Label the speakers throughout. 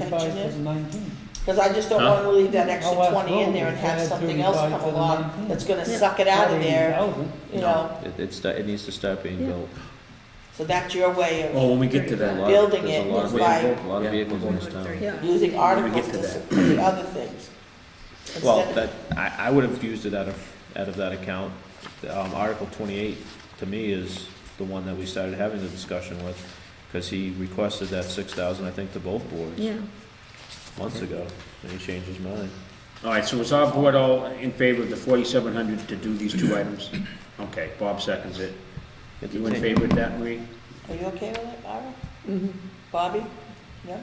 Speaker 1: Thirty-five to the
Speaker 2: Attention
Speaker 1: nineteen.
Speaker 2: Because I just don't
Speaker 3: Huh?
Speaker 2: want to leave that extra
Speaker 1: How else
Speaker 2: twenty in there and
Speaker 1: will we
Speaker 2: have
Speaker 1: add
Speaker 2: something else
Speaker 1: 35
Speaker 2: come
Speaker 1: to the
Speaker 2: along
Speaker 1: 19?
Speaker 2: that's gonna
Speaker 4: Yeah.
Speaker 2: suck it out of
Speaker 1: Not
Speaker 2: there,
Speaker 1: 80,000.
Speaker 2: you
Speaker 3: No,
Speaker 2: know?
Speaker 3: It, it's, it needs to start being
Speaker 4: Yeah.
Speaker 3: built.
Speaker 2: So that's your way
Speaker 5: Well,
Speaker 2: of
Speaker 5: when we get to
Speaker 3: There's a
Speaker 5: that,
Speaker 3: lot-
Speaker 2: Building
Speaker 3: Oh, there's
Speaker 2: it
Speaker 3: a lot of
Speaker 2: was by-
Speaker 3: vehicles- A lot of
Speaker 5: Yeah.
Speaker 3: vehicles in this town.
Speaker 4: Yeah.
Speaker 2: using articles
Speaker 5: to
Speaker 2: to
Speaker 5: that.
Speaker 2: support other things.
Speaker 3: Well,
Speaker 2: Instead
Speaker 3: that,
Speaker 2: of-
Speaker 3: I, I would have used it out of, out of that account. Um, Article twenty-eight, to me, is the one that we started having the discussion with, because he requested that six thousand, I think, to both boards
Speaker 4: Yeah,
Speaker 3: months ago, and he changed his mind.
Speaker 5: all right, so is our board all in favor of the forty-seven hundred to do these two items? Okay, Bob seconds it.
Speaker 3: It's a
Speaker 5: You in
Speaker 3: thing.
Speaker 5: favor of that, Marie?
Speaker 2: Are you okay with it, Ira?
Speaker 4: Mm-hmm.
Speaker 2: Bobby? Yeah?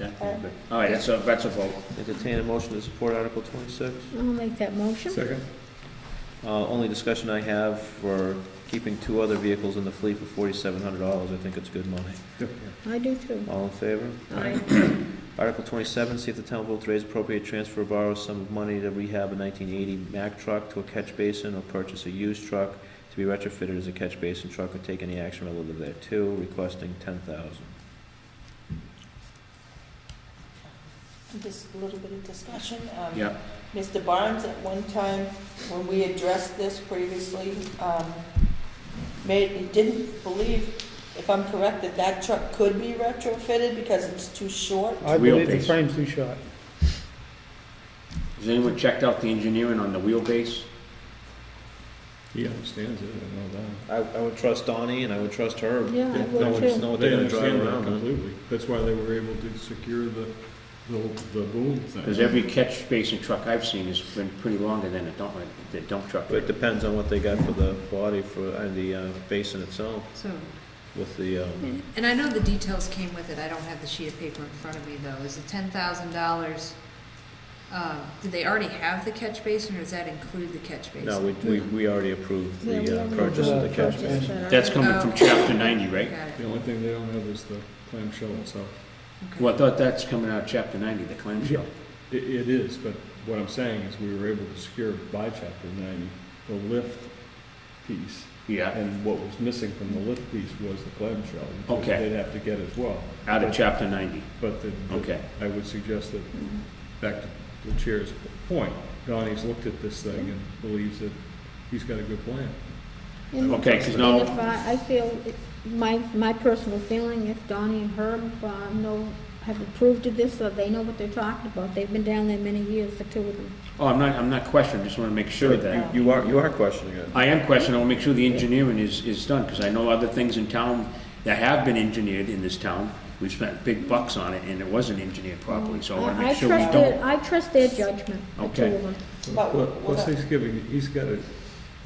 Speaker 5: Yeah, you're good. All right, that's a, that's a vote.
Speaker 3: Entertain a motion to support Article twenty-six.
Speaker 4: I'll make that motion.
Speaker 1: Second.
Speaker 3: Uh, only discussion I have for keeping two other vehicles in the fleet for forty-seven hundred dollars, I think it's good money.
Speaker 4: I do too.
Speaker 3: All in favor?
Speaker 4: Aye.
Speaker 3: Article twenty-seven, see if the town will vote to raise appropriate transfer or borrow some of money to rehab a nineteen eighty Mack truck to a catch basin or purchase a used truck to be retrofitted as a catch basin truck or take any action relative thereto, requesting ten thousand.
Speaker 2: Just a little bit of discussion. Um,
Speaker 5: Yeah,
Speaker 2: Mr. Barnes, at one time, when we addressed this previously, um, made, he didn't believe, if I'm correct, that that truck could be retrofitted because it's too short.
Speaker 1: I
Speaker 5: Wheel
Speaker 1: believe the
Speaker 5: base.
Speaker 1: frame's too short.
Speaker 5: has anyone checked out the engineering on the wheelbase?
Speaker 6: He understands it, I know that.
Speaker 3: I, I would trust Donnie and I would trust her.
Speaker 4: Yeah, I would
Speaker 3: No one just
Speaker 4: too.
Speaker 3: know what they're gonna drive
Speaker 6: understand that
Speaker 3: around on.
Speaker 6: Completely, that's why they were able to secure the, the, the boom
Speaker 5: Because
Speaker 6: thing.
Speaker 5: every catch basin truck I've seen has been pretty longer than a dump, the dump truck.
Speaker 3: But it depends on what they got for the body for, and the, uh, basin itself
Speaker 7: So,
Speaker 3: with the, um,
Speaker 7: and I know the details came with it, I don't have the sheet of paper in front of me though, is the ten thousand dollars, uh, do they already have the catch basin, or does that include the catch basin?
Speaker 3: no, we, we, we already approved
Speaker 4: Yeah, we
Speaker 3: the, uh,
Speaker 4: already
Speaker 3: purchase of the
Speaker 1: approved the
Speaker 3: catch
Speaker 1: catch
Speaker 3: basin.
Speaker 1: basin.
Speaker 5: That's coming from
Speaker 7: Okay.
Speaker 5: chapter ninety, right?
Speaker 7: Oh, Got it,
Speaker 6: The only thing they don't have is the clamshell itself.
Speaker 7: okay.
Speaker 5: Well, I thought that's coming out of chapter ninety, the clamshell.
Speaker 6: It, it is, but what I'm saying is we were able to secure by chapter ninety, the lift piece.
Speaker 5: Yeah,
Speaker 6: And what was missing from the lift piece was the clamshell. which
Speaker 5: Okay.
Speaker 6: They'd have to get as well.
Speaker 5: out of chapter ninety.
Speaker 6: But the, the-
Speaker 5: Okay.
Speaker 6: I would suggest that, back to the chair's point, Donnie's looked at this thing and believes that he's got a good plan.
Speaker 4: And-
Speaker 5: Okay, 'cause now-
Speaker 4: And if I, I feel, it- my, my personal feeling, if Donnie and Herb, uh, know, have approved of this, or they know what they're talking about, they've been down there many years, the two of them.
Speaker 5: Oh, I'm not, I'm not questioning, just wanna make sure that.
Speaker 3: You are, you are questioning it.
Speaker 5: I am questioning, I wanna make sure the engineering is, is done, because I know other things in town that have been engineered in this town. We've spent big bucks on it, and it wasn't engineered properly, so I wanna
Speaker 4: I- I
Speaker 5: make sure we
Speaker 4: trust their-
Speaker 5: don't.
Speaker 4: I trust their judgment, the two
Speaker 5: Okay.
Speaker 4: of them.
Speaker 2: But
Speaker 6: Plus- Plus,
Speaker 2: what-
Speaker 6: he's giving, he's got a.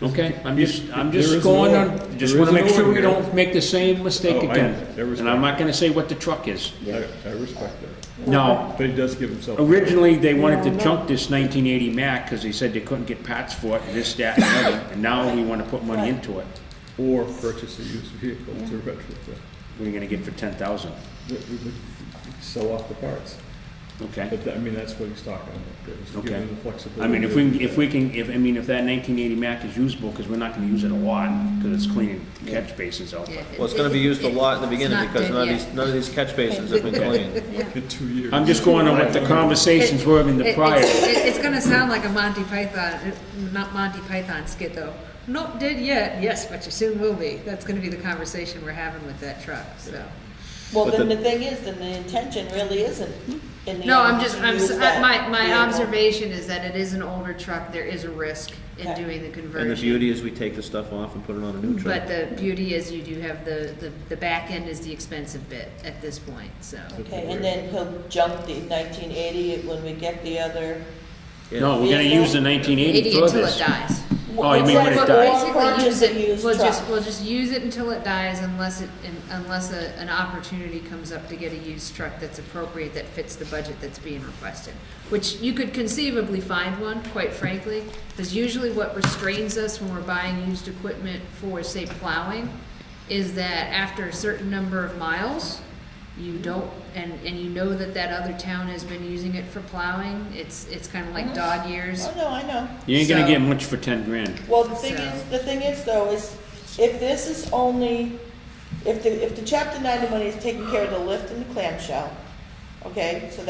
Speaker 5: Okay, I'm just, I'm
Speaker 6: There
Speaker 5: just
Speaker 6: is an
Speaker 5: going
Speaker 6: order.
Speaker 5: on, just
Speaker 6: There is
Speaker 5: wanna
Speaker 6: an
Speaker 5: make sure
Speaker 6: order
Speaker 5: we
Speaker 6: here.
Speaker 5: don't make the same mistake
Speaker 6: Oh, I-
Speaker 5: again.
Speaker 6: I respect
Speaker 5: And I'm not gonna say what the truck is.
Speaker 6: I, I respect that,
Speaker 5: Now,
Speaker 6: but he does give himself.
Speaker 5: Originally, they wanted to junk this 1980 Mac because they said they couldn't get parts for it, this, that, and the other. And now we want to put money into it.
Speaker 6: Or purchase a used vehicle to retrofit,
Speaker 5: We're going to get for 10,000.
Speaker 6: We- we would sell off the parts,
Speaker 5: Okay.
Speaker 6: but that- I mean, that's what he's talking about, is
Speaker 5: Okay.
Speaker 6: giving the flexibility.
Speaker 5: I mean, if we, if we can, if, I mean, if that 1980 Mac is usable, because we're not going to use it a lot, because it's cleaning catch basins out.
Speaker 7: Yeah,
Speaker 3: Well, it's gonna be used a lot in the beginning
Speaker 7: not
Speaker 3: because
Speaker 7: dead
Speaker 3: none of
Speaker 7: yet.
Speaker 3: these, none of these catch basins have been cleaned.
Speaker 6: In two years.
Speaker 5: I'm just going on what the conversations were in the
Speaker 7: It-
Speaker 5: prior.
Speaker 7: It's, it- it's gonna sound like a Monty Python, uh, not Monty Python skit though. Not dead yet, yes, but you soon will be. That's gonna be the conversation we're having with that truck, so.
Speaker 2: Well,
Speaker 3: But
Speaker 2: then
Speaker 3: the-
Speaker 2: the thing is, then the intention really isn't in the.
Speaker 7: No, I'm
Speaker 2: end
Speaker 7: just,
Speaker 2: to
Speaker 7: I'm,
Speaker 2: use
Speaker 7: s-
Speaker 2: that
Speaker 7: my, my
Speaker 2: vehicle.
Speaker 7: observation is that it is an older truck, there is a risk in
Speaker 2: Yeah.
Speaker 7: doing the
Speaker 3: And the
Speaker 7: conversion.
Speaker 3: beauty is we take the stuff off and put it on a new truck.
Speaker 7: But the beauty is you do have the, the, the back end is the expensive bit at this point, so.
Speaker 2: Okay, and then he'll jump the nineteen eighty when we get the other.
Speaker 5: No, we're going to use the 1980
Speaker 7: Eighty
Speaker 5: for
Speaker 7: until
Speaker 5: this.
Speaker 7: it dies.
Speaker 5: Oh, you mean when it
Speaker 7: We'll
Speaker 5: dies?
Speaker 7: basically use it-
Speaker 2: Purchase a used
Speaker 7: We'll just,
Speaker 2: truck.
Speaker 7: we'll just use it until it dies unless it, un- unless a, an opportunity comes up to get a used truck that's appropriate, that fits the budget that's being requested. Which you could conceivably find one, quite frankly, because usually what restrains us when we're buying used equipment for, say, plowing, is that after a certain number of miles, you don't, and, and you know that that other town has been using it for plowing, it's, it's kind of like dog years.
Speaker 2: Oh, no, I know.
Speaker 5: You ain't going
Speaker 7: So-
Speaker 5: to get much for 10 grand.
Speaker 2: Well, the thing
Speaker 7: So-
Speaker 2: is, the thing is though, is if this is only, if the, if the chapter ninety money is taking care of the lift and the clamshell, okay, so